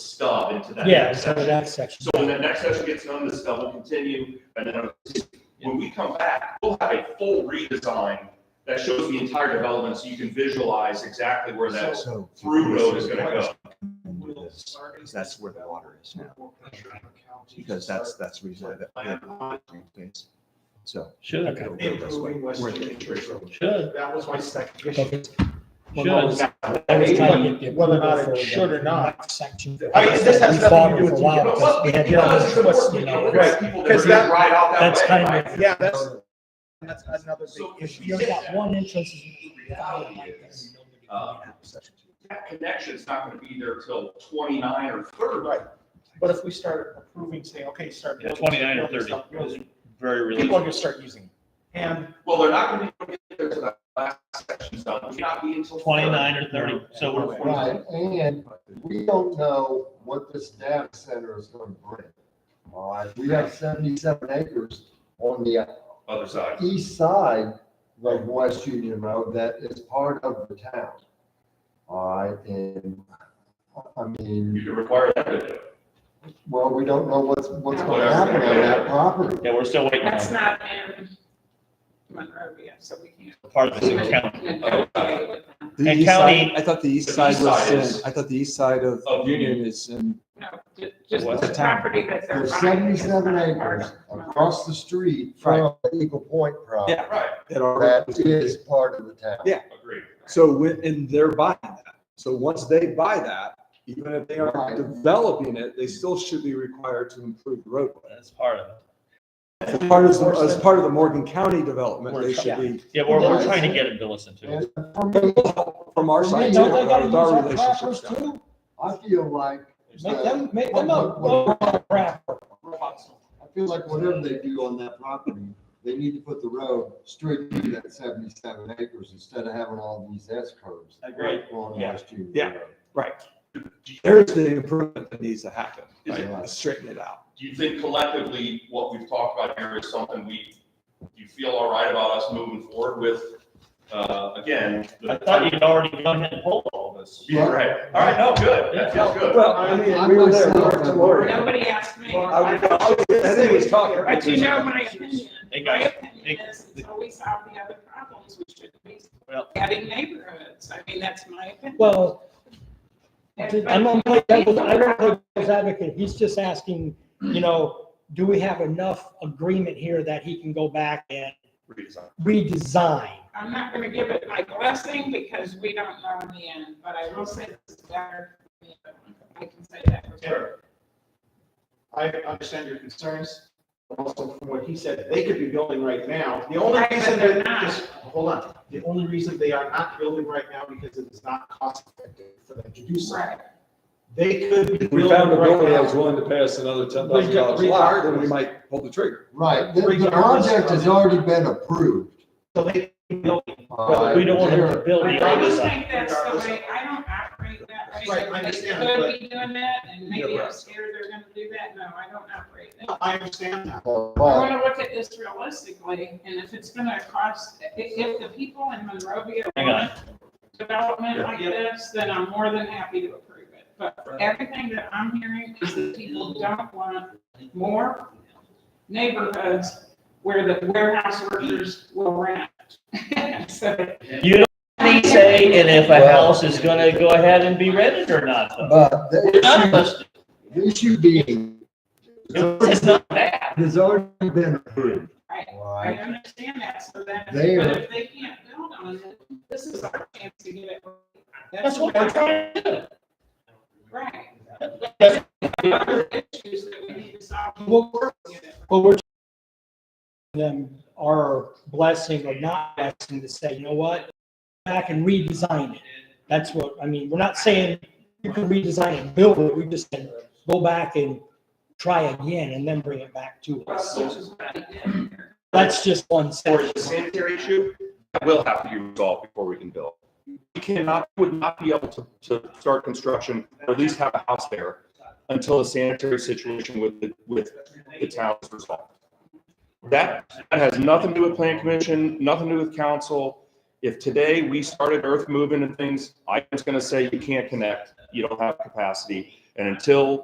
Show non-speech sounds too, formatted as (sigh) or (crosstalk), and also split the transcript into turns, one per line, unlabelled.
stub into that.
Yeah,
next
so
section.
that section.
So when that next session gets done, the stub will continue, and then when we come back, we'll have a full redesign that shows the entire development, so you can visualize exactly where that
So-
through road is gonna go.
And do this, Because that's where the water is now, because that's, that's the reason I- that. So.
Should,
Okay.
it'll go this way.
Improving West
Where the
Main.
entrance road.
should,
That was my second issue.
Should.
should.
I was trying to get
Whether or not
approval
it
for
should or
the
not.
Section.
I mean, this has
We fought
nothing to do
for a
with-
while
you know,
because we had
Because
this
it's important,
twist,
you
you
know,
know,
we're gonna have people that are
'Cause that-
gonna ride out that
That's
way.
kind of.
Yeah, that's, that's that's another big
So if
issue.
you
You've got one entrance. is-
Uh, That connection's not gonna be there till twenty-nine or thirty.
Right, but if we start approving, saying, okay, start.
Yeah,
building,
29 or
building,
30
start building,
Very
People are gonna
realistic.
start using. it. And
Well, they're not gonna be able to get there till that last section's done, it may not be until. 30.
Twenty-nine or thirty, so we're forty.
Right, and we don't know what this data center is gonna bring. All right, we have seventy-seven acres on the
Other side.
east side of West Union Road that is part of the town. All right, and, I
You
mean,
can require that. to do it.
well, we don't know what's, what's gonna happen on that property.
Yeah, we're still waiting
That's
on
not in Monrovia, so we can't.
part of the city county.
negotiate with them.
The
And
east side-
county-
I thought the east
The
side
east
was,
side
in-
is-
I thought the east side of
Of Union.
Union is in,
No, ju- just
What's
the
the town?
property that they're.
There's
buying is
seventy-seven
not part of
acres across the street from Eagle Point property
yeah,
Right,
that are.
that is part of the town.
Yeah.
agreed.
So when, and they're buying that. So once they buy that, even if they are
Right.
developing it, they still should be required to improve the roadway.
That's part of it.
As part of, the- as part of the Morgan County development, they should be,
Yeah, we're, we're trying to get them to listen to us.
And for me,
from our
Don't
side,
they
too,
gotta
right, with our
use our
relationships. down there.
I feel like.
Make them, make them a low rapper.
I feel like whatever they do on that property, they need to put the road straight through that seventy-seven acres instead of having all these S curves.
Agreed.
On
Yeah.
West Union
Yeah.
Road.
There's the improvement that needs to happen,
Is
it-
right? Straighten it out.
Do you think collectively, what we've talked about here is something we, do you feel all right about us moving forward with, uh, again? the-
I thought you'd already gone ahead and pulled all this.
Yeah, (laughs) right. All right, no, good. That feels good.
Well, I mean,
I
we were there, we
myself
were
am-
tomorrow.
that. Nobody asked me.
I was- I was- I think he was talking.
But you know my opinion.
They
My
got,
opinion is until we solve the other problems, we shouldn't be
Well-
adding neighborhoods. I mean, that's my opinion.
Well,
And-
I'm gonna play devil's, I don't play devil's advocate. He's just asking, you know, do we have enough agreement here that he can go back and
Redesign.
redesign?
I'm not gonna give it my blessing because we don't know in the end, but I will say this is better. than the other one. I can say that. for sure.
I understand your concerns. Also, from what he said, they could be building right now. The only
Right, but
reason
they're
they're
not.
not, just, hold on. The only reason they are not building right now because it is not cost effective for them to do so.
Right.
They could be
We
building
found a builder that
right
was
now.
willing to pay us another ten thousand dollars a lot, then we might pull the trigger.
Right, the, the
Regardless
project has
of-
already been approved.
So they,
But we don't want him to build
I
the
don't
other side.
think that's the way, I don't operate that way.
Right, I understand,
They
but-
could be doing that, and maybe I'm
Yeah, right.
scared they're gonna do that, no, I don't operate that.
I understand that.
I wanna look at this realistically, and if it's gonna cost, i- if the people in Monrovia
Hang on.
want development like
Yeah.
this, then I'm more than happy to approve it. But everything that I'm hearing is that people don't want more neighborhoods where the warehouse workers will rent. (laughs) So,
You don't say in if a house is gonna go ahead and be rented or not, though.
But
None of
the
us-
issue, the issue being,
It's not bad.
has already been approved.
Right.
All
I
right,
understand that, so that, but
They are-
if they can't build on it, this is our chance to get it.
That's what we're trying to do.
Right. That's the other issues that we need to solve.
Well, we're- Well, we're them our blessing or not blessing to say, you know what, back and redesign it. That's what, I mean, we're not saying you can redesign and build it, we just said, go back and try again and then bring it back to us.
Which is what I did.
That's just one
Or is
section.
the sanitary issue, that will have to be resolved before we can build. We cannot, would not be able to, to start construction, or at least have a house there, until the sanitary situation with, the with the town is resolved. That, that has nothing to do with plan commission, nothing to do with council. If today we started earth moving and things, I'm just gonna say you can't connect, you don't have capacity, and And until